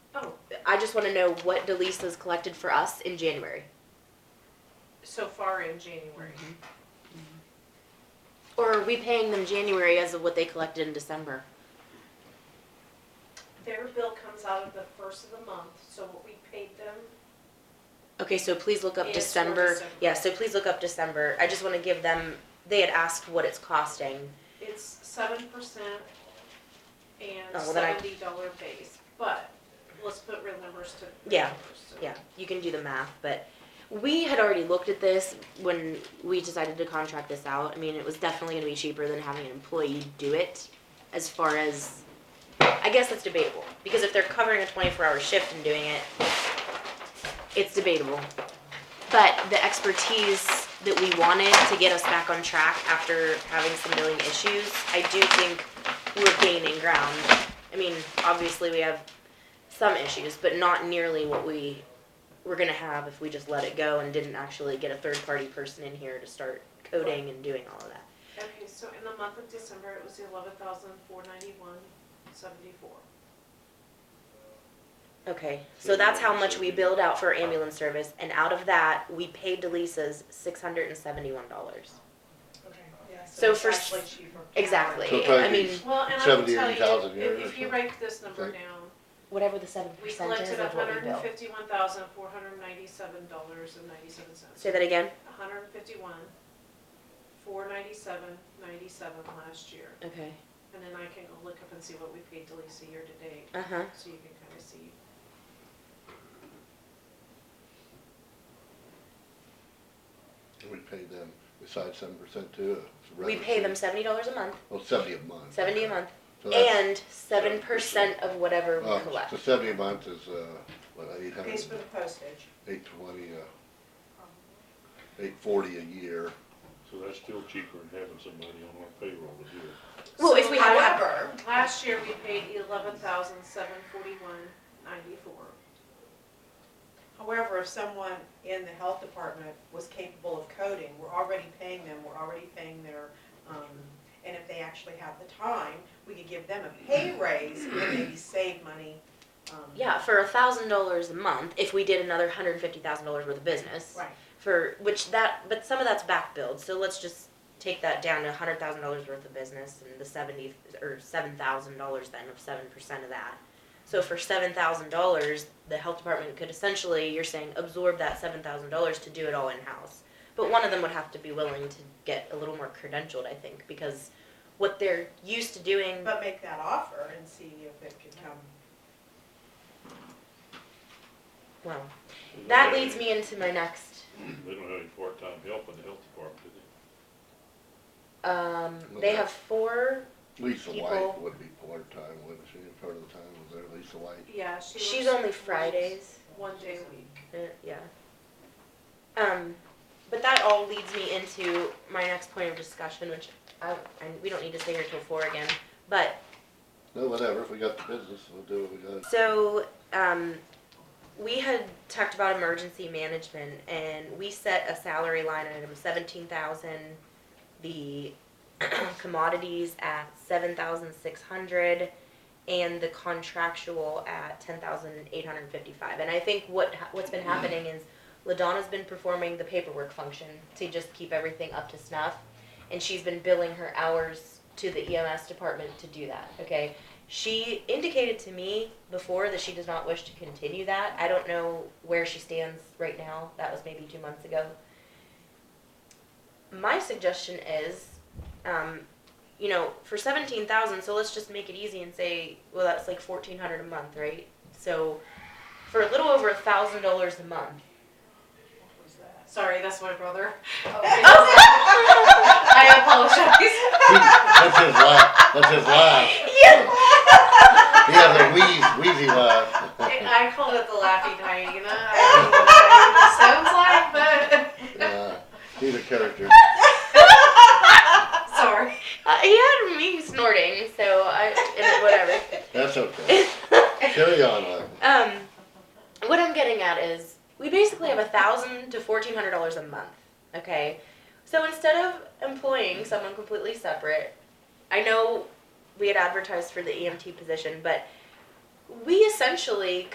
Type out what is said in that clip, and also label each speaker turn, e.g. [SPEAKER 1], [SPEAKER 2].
[SPEAKER 1] just want to know what Delisa's collected for us in January.
[SPEAKER 2] so far in January.
[SPEAKER 1] Mm-hmm. Or are we paying them January as of what they collected in December?
[SPEAKER 2] Their bill comes out of the first of the month, so what we paid them,
[SPEAKER 1] Okay, so please look up
[SPEAKER 2] It's for
[SPEAKER 1] December.
[SPEAKER 2] December.
[SPEAKER 1] Yeah, so please look up December. I just want to give them, they had asked what it's costing.
[SPEAKER 2] it's seven percent and
[SPEAKER 1] Oh, well, then I-
[SPEAKER 2] seventy dollar base, but let's put real numbers to. real
[SPEAKER 1] Yeah,
[SPEAKER 2] numbers, so.
[SPEAKER 1] Yeah, you can do the math, but we had already looked at this when we decided to contract this out. I mean, it was definitely gonna be cheaper than having an employee do it as far as, I guess that's debatable, because if they're covering a twenty-four hour shift and doing it, it's debatable. But the expertise that we wanted to get us back on track after having some billing issues, I do think we're gaining ground. I mean, obviously, we have some issues, but not nearly what we were gonna have if we just let it go and didn't actually get a third party person in here to start coding and doing all of that.
[SPEAKER 2] Okay, so in the month of December, it was eleven thousand four ninety-one seventy-four.
[SPEAKER 1] Okay, so that's how much we billed out for ambulance service, and out of that, we paid Delisa's six hundred and seventy-one dollars.
[SPEAKER 2] Okay, yeah,
[SPEAKER 1] So it's for s- actually
[SPEAKER 2] cheaper.
[SPEAKER 1] Exactly,
[SPEAKER 3] So
[SPEAKER 1] I
[SPEAKER 3] thank
[SPEAKER 1] mean,
[SPEAKER 3] you.
[SPEAKER 2] Well, and I will
[SPEAKER 3] 70 or
[SPEAKER 2] tell
[SPEAKER 3] 80,000
[SPEAKER 2] you, if-
[SPEAKER 3] euros
[SPEAKER 2] if you
[SPEAKER 3] or
[SPEAKER 2] write this number
[SPEAKER 3] Okay.
[SPEAKER 2] down,
[SPEAKER 1] whatever the seven
[SPEAKER 2] we
[SPEAKER 1] percent is
[SPEAKER 2] collected
[SPEAKER 1] of what we
[SPEAKER 2] hundred
[SPEAKER 1] billed.
[SPEAKER 2] and fifty-one thousand four hundred ninety-seven dollars and ninety-seven cents.
[SPEAKER 1] Say that again,
[SPEAKER 2] hundred and fifty-one, four ninety-seven, ninety-seven last year.
[SPEAKER 1] okay,
[SPEAKER 2] And then I can go look up and see what we paid Delisa year to date,
[SPEAKER 1] uh-huh,
[SPEAKER 2] so you can kind of see.
[SPEAKER 3] We pay them besides seven percent too. it's a
[SPEAKER 1] we
[SPEAKER 3] regular
[SPEAKER 1] pay
[SPEAKER 3] fee.
[SPEAKER 1] them seventy dollars a month,
[SPEAKER 3] Well, seventy a month.
[SPEAKER 1] seventy a month,
[SPEAKER 3] So that's-
[SPEAKER 1] and seven percent of whatever we
[SPEAKER 3] oh,
[SPEAKER 1] collect.
[SPEAKER 3] So seventy a month is, uh, what, eight hundred,
[SPEAKER 4] Pays for the postage.
[SPEAKER 3] eight twenty, uh, eight forty a year.
[SPEAKER 5] So that's still cheaper than having somebody on our payroll to do it.
[SPEAKER 1] Well, if we
[SPEAKER 2] So,
[SPEAKER 1] had-
[SPEAKER 4] However,
[SPEAKER 2] Last year, we paid eleven thousand, seven forty-one, ninety-four.
[SPEAKER 4] however, if someone in the health department was capable of coding, we're already paying them, we're already paying their, um, and if they actually have the time, we could give them a pay raise and maybe save money. um,
[SPEAKER 1] Yeah, for a thousand dollars a month, if we did another hundred fifty thousand dollars worth of business,
[SPEAKER 4] Right,
[SPEAKER 1] for which that, but some of that's back billed. So let's just take that down to a hundred thousand dollars worth of business and the seventy or seven thousand dollars then of seven percent of that. So for seven thousand dollars, the health department could essentially, you're saying, absorb that seven thousand dollars to do it all in house. But one of them would have to be willing to get a little more credentialed, I think, because what they're used to doing.
[SPEAKER 4] but make that offer and see if it could come.
[SPEAKER 1] Well,
[SPEAKER 5] They don't
[SPEAKER 1] that
[SPEAKER 5] have
[SPEAKER 1] leads
[SPEAKER 5] any-
[SPEAKER 1] me into my next.
[SPEAKER 5] They don't have any part-time help in the health department, do they?
[SPEAKER 1] Um, they have four.
[SPEAKER 3] Lisa
[SPEAKER 1] People-
[SPEAKER 3] White would be part-time, wouldn't she, part of the time, was there Lisa White?
[SPEAKER 2] Yeah, she works.
[SPEAKER 1] She's only Fridays.
[SPEAKER 2] One day a week.
[SPEAKER 1] Uh, yeah. Um, but that all leads me into my next point of discussion, which I, I, we don't need to stay here till four again. But
[SPEAKER 3] No, whatever, if we got the business, we'll do what we gotta.
[SPEAKER 1] so um, we had talked about emergency management, and we set a salary line item seventeen thousand. The commodities at seven thousand six hundred. and the contractual at ten thousand eight hundred fifty-five. And I think what ha- what's been happening is Ladonna's been performing the paperwork function to just keep everything up to snuff, and she's been billing her hours to the EMS department to do that. Okay, she indicated to me before that she does not wish to continue that. I don't know where she stands right now. That was maybe two months ago. My suggestion is. Um, you know, for seventeen thousand, so let's just make it easy and say, well, that's like fourteen hundred a month, right? So, for a little over a thousand dollars a month.
[SPEAKER 4] What was that?
[SPEAKER 2] Sorry, that's my brother.
[SPEAKER 1] Oh,
[SPEAKER 4] Okay.
[SPEAKER 2] I apologize.
[SPEAKER 3] That's his laugh, that's his laugh.
[SPEAKER 1] Yeah.
[SPEAKER 3] He has a wheeze, wheezy laugh.
[SPEAKER 2] I I called it the laughing hyena. I don't know what it sounds like,
[SPEAKER 3] Yeah, he's a character.
[SPEAKER 2] but, sorry.
[SPEAKER 1] Uh, he had me snorting, so I and whatever.
[SPEAKER 3] That's okay. Carry on, love.
[SPEAKER 1] um, what I'm getting at is we basically have a thousand to fourteen hundred dollars a month. Okay, so instead of employing someone completely separate, I E know we had advertised for the EMT position, but we essentially